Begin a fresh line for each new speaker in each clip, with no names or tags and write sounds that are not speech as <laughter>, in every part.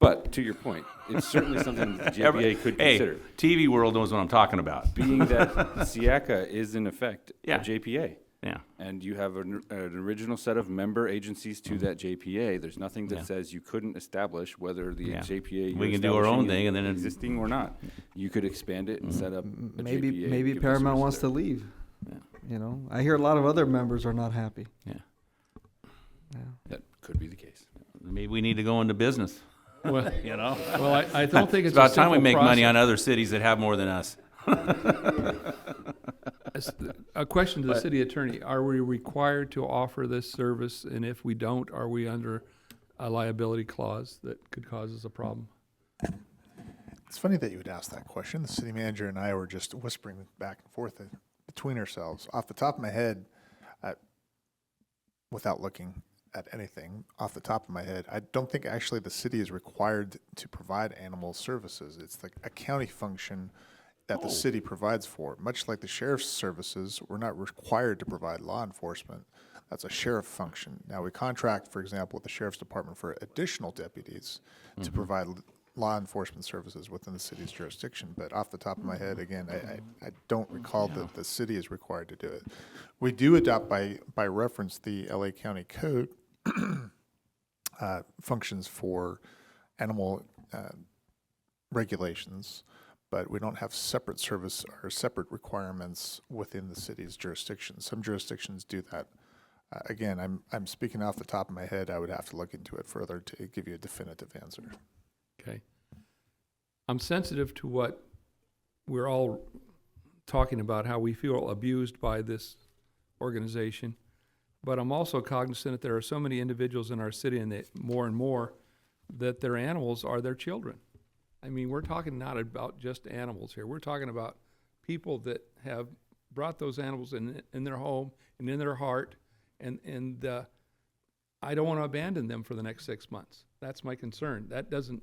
But to your point, it's certainly something that the
<laughs> Every-
JPA could
hey,
consider.
TV world knows what I'm talking about.
Being that Siaka is in effect a
Yeah.
JPA.
Yeah.
And you have an, an original set of member agencies to that JPA. There's nothing that
Mm-hmm. Yeah.
says you couldn't establish whether the
Yeah.
JPA you're
We can do our
establishing
own
is
thing and then it- Mm-hmm.
existing or not. You could expand it and set up a
maybe
JPA,
maybe
give the
Paramount wants to
service
leave.
Yeah.
You know, I hear a lot of other members are not happy.
Yeah.
there. That could be the case.
Maybe we need to go into business.
Well,
<laughs> You know,
well, I, I don't think
it's
it's a
about time we
simple
make money
process.
on other cities that have more than us.
As- A question to the city attorney, are we required to offer this service, and if we don't, are we under a liability clause that could cause us a problem?
It's funny that you would ask that question. The city manager and I were just whispering back and forth between ourselves. Off the top of my head, I, without looking at anything, off the top of my head, I don't think actually the city is required to provide animal services. It's like a county function that the city provides for. Much like the sheriff's services, we're not required to provide law enforcement. That's a sheriff function. Now, we contract, for example, with the sheriff's department for additional deputies to provide l- law enforcement services within the city's jurisdiction. But off the top of my head, again, I, I, I don't recall that the city is required to do it. We do adopt by, by reference the LA County Code <clears throat> uh, functions for animal uh, regulations, but we don't have separate service or separate requirements within the city's jurisdiction. Some jurisdictions do that. Uh, Again, I'm, I'm speaking off the top of my head. I would have to look into it further to give you a definitive answer.
Okay. I'm sensitive to what we're all talking about, how we feel abused by this organization. But I'm also cognizant that there are so many individuals in our city and that more and more that their animals are their children. I mean, we're talking not about just animals here. We're talking about people that have brought those animals in, in their home and in their heart. And, and, uh, I don't want to abandon them for the next six months. That's my concern. That doesn't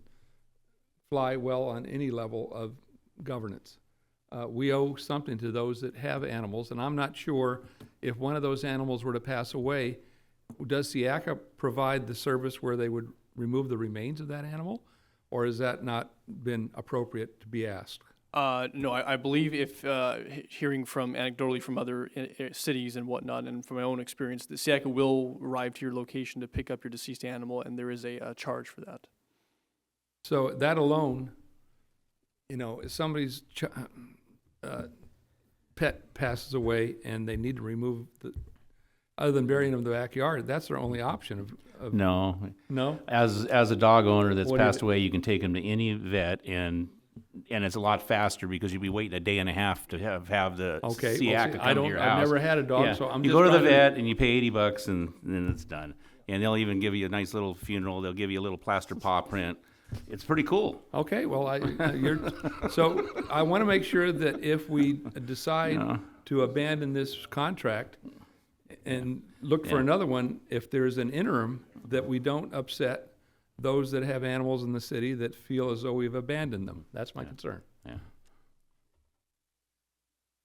fly well on any level of governance. Uh, we owe something to those that have animals, and I'm not sure if one of those animals were to pass away, does SIACA provide the service where they would remove the remains of that animal? Or has that not been appropriate to be asked?
Uh, no, I, I believe if uh, he- hearing from anecdotally from other uh, uh, cities and whatnot, and from my own experience, the SIACA will arrive to your location to pick up your deceased animal, and there is a, uh charge for that.
So that alone, you know, if somebody's ch- uh, pet passes away and they need to remove the, other than burying them in the backyard, that's their only option of, of
No,
no?
as as a dog owner that's
What do you-
passed away, you can take him to any vet and and it's a lot faster because you'd be waiting a day and a half to have have the
Okay, well,
SEAC
see,
to
I
come
don't-
to your
I've
house.
never had a dog,
Yeah.
so I'm
you
just
go to the
trying to-
vet and you pay eighty bucks and then it's done. And they'll even give you a nice little funeral. They'll give you a little plaster paw print. It's pretty cool.
Okay, well, I, you're, so I want to make sure that if we decide to abandon this contract and look for
Yeah.
another one, if there's an interim, that we don't upset those that have animals in the city that feel as though we've abandoned them. That's my concern.
Yeah.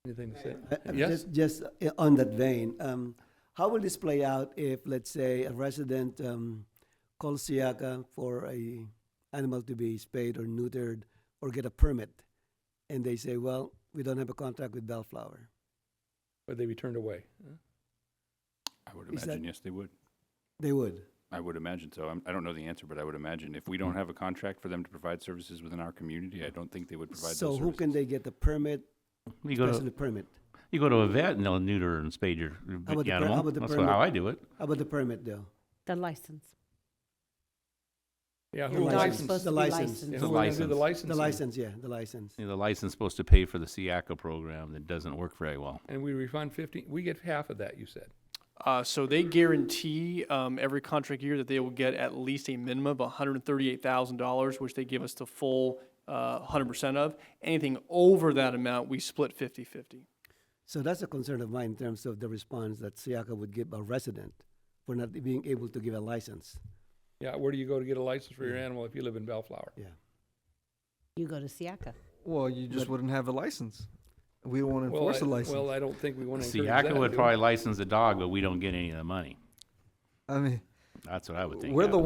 Anything to say?
Uh, uh,
Yes?
Just, just uh, on that vein, um, how will this play out if, let's say, a resident um, calls Siaka for a animal to be spayed or neutered or get a permit, and they say, "Well, we don't have a contract with Bellflower."
Would they be turned away?
I would
Is that-
imagine, yes, they would.
They would.
I would imagine so. I'm, I don't know the answer, but I would imagine if we
Mm.
don't have a contract for them to provide services within our community, I don't think they would provide
so
those
who can
services.
they get the permit?
You go
special
to
permit.
you go to a vet and they'll neuter and spay your
How about the per-
animal.
how about the
That's
permit?
how I do it.
How about the permit, though?
The license.
Yeah,
The
who
dog's
licensed?
supposed to The be license.
Yeah,
licensed.
who would do the
license.
licensing?
The license, yeah, the license.
You know, the license is supposed to pay for the SIACA program that doesn't work very well.
And we refund fifty, we get half of that, you said.
Uh, so they guarantee um, every contract year that they will get at least a minimum of $138,000, which they give us the full uh, 100% of. Anything over that amount, we split 50 50.
So that's a concern of mine in terms of the response that Siaka would give a resident for not being able to give a license.
Yeah, where do you go to get a license for your animal if you live in Bellflower?
Yeah.
You go to Siaka.
Well, you just wouldn't have a license. We don't want to
Well,
enforce
I-
a license.
Well, I don't think we want to encourage that.
SIACA would
do we?
probably license the dog, but we don't get any of the money.
I mean,
That's what I would think.
we're
happened.
the